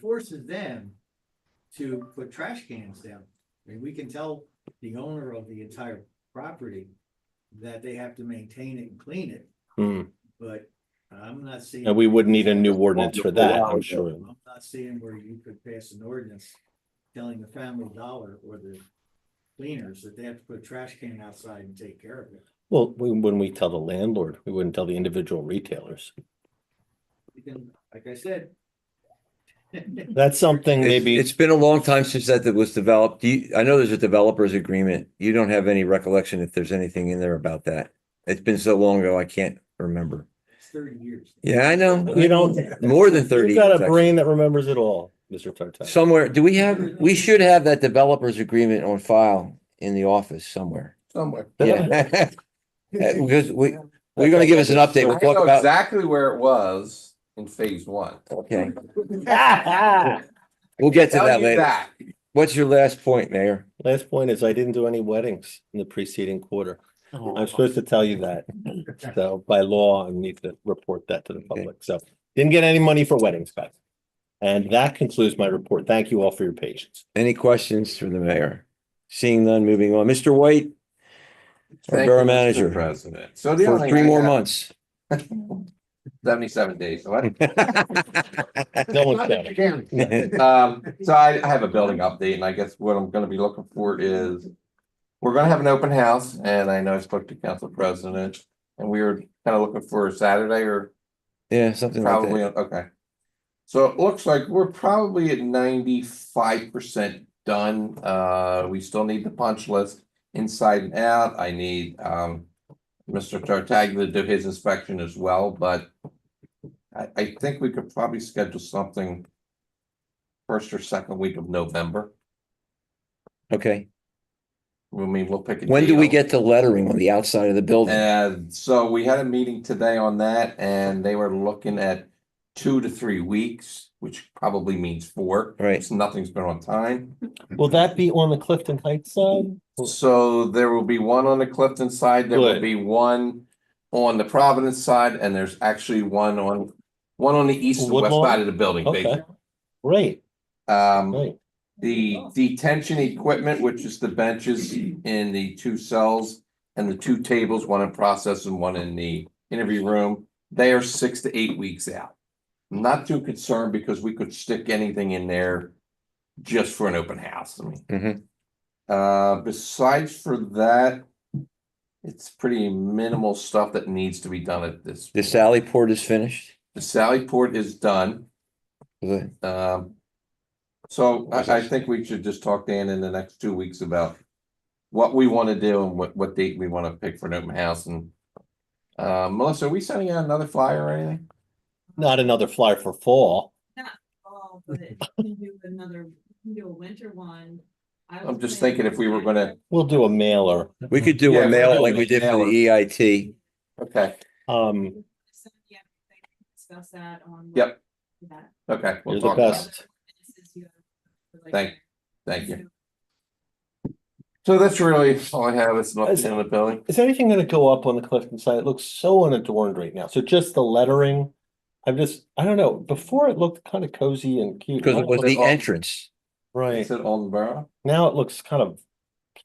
forces them to put trash cans down. I mean, we can tell the owner of the entire property that they have to maintain it and clean it, Hmm. but I'm not seeing. And we would need a new ordinance for that, I'm sure. I'm not seeing where you could pass an ordinance telling the family dollar or the cleaners that they have to put a trash can outside and take care of it. Well, we- when we tell the landlord, we wouldn't tell the individual retailers. You can, like I said. That's something It's- maybe, It's been a long time since that that was developed. Do you, I know there's a developers agreement. You don't have any recollection if there's anything in there about that. It's been so long ago, I can't remember. It's thirty years. Yeah, I know. you don't, More than you've thirty. got a actually. brain that remembers it all, Mr. Tartaglia. Somewhere, do we have, we should have that developers agreement on file in the office somewhere. somewhere. Yeah. Because we, we're gonna give us an update. We'll I know talk about, exactly where it was in phase one. okay, Last we'll get to Tell that you later. that. What's your last point, Mayor? point is I didn't do any weddings in the preceding quarter. I'm supposed to tell you that. So by law, I need to report that to the public. So didn't get any money for weddings, guys. And that concludes my report. Thank you all for your patience. Any questions for the mayor? Seeing none, moving on. Mr. White? Our Thank borough you, Mr. manager. President. So the for only. three thing I more got- months. Seventy-seven days. so I- No one's got it. Um, so I, I have a building update and I guess what I'm gonna be looking for is. We're gonna have an open house and I know I spoke to council president and we were kind of looking for a Saturday or Yeah, something like Probably, that. okay. So it looks like we're probably at ninety-five percent done. Uh, we still need the punch list inside and out. I need, um. Mr. Tartaglia to do his inspection as well, but. I, I think we could probably schedule something. First or second week of November. Okay. I mean, we'll pick. a When do we date. get the lettering on the outside of the building? And so we had a meeting today on that and they were looking at two to three weeks, which probably means four. Right. It's- Nothing's been on time. Will that be on the Clifton Heights side? So there will be one on the Clifton side, there will Good. be one on the Providence side, and there's actually one on, one on the east and west Woodlawn? side of the building, Okay. basically. Great, Um, great. the detention equipment, which is the benches in the two cells and the two tables, one in process and one in the interview room, they are six to eight weeks out. I'm Not too concerned because we could stick anything in there just for an open house. I mean, Mhm. uh, besides for that, it's pretty minimal stuff that needs to be done at this. The Sally Port is finished? The Sally Port is done. The- Um. So What was I, I that? think we should just talk Dan in the next two weeks about. What we want to do and what, what date we want to pick for an open house and. Uh, Melissa, are we sending out another flyer or anything? Not another flyer for fall. fall, but if you can do another, you can do a winter one. I I'm was just thinking if we were gonna, We'll do a mailer. We could do Yeah, a we'll mail do like we it. did for the E EIT. okay, Um, Yeah, we can Discuss that on. Yep. That. okay, You're we'll the talk about best. it. This is your- like- Thank- Thank you. So that's really all I have. It's nothing in the building. is anything gonna go up on the Clifton side? It looks so unadorned right now. So just the lettering. I'm just, I don't know, before it looked kind of cozy and cute. Because it was the all- entrance. Right, Is it on the borough? now it looks kind of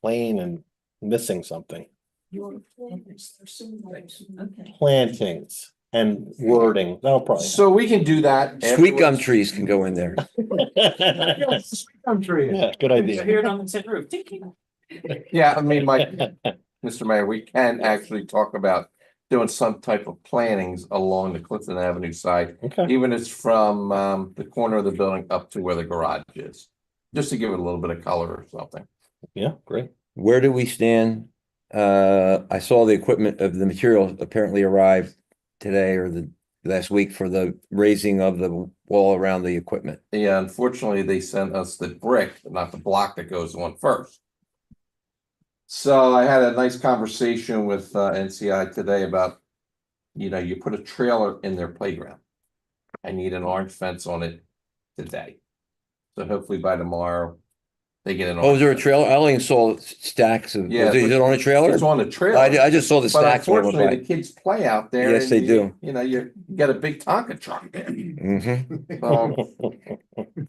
plain and missing something. Okay. Plantings and wording, that'll probably. So we can do that. Sweet gum afterwards. trees can go in there. Gum tree. Yeah, good idea. Hear it on the tin roof. Tick, tick. Yeah, I mean, Mike, Mr. Mayor, we can actually talk about doing some type of plantings along the Clifton Avenue side. Okay, Even it's from um the corner of the building up to where the garage is, just to give it a little bit of color or something. yeah, great. Where do we stand? Uh, I saw the equipment of the material apparently arrived today or the last week for the raising of the wall around the equipment. Yeah, unfortunately, they sent us the brick, not the block that goes on first. So I had a nice conversation with uh NCI today about, you know, you put a trailer in their playground. I need an orange fence on it today. So hopefully by tomorrow, they get an. Oh, is orange there a fence. trailer? I only saw s- stacks of, Yeah, is it is it on a trailer? It's on the trailer. I, I just saw the But stacks. when I went unfortunately, the kids play out there. Yes, and they you- do. Mm-hmm. You know, you you got a big Tonka truck there. Oh. by. Mhm. So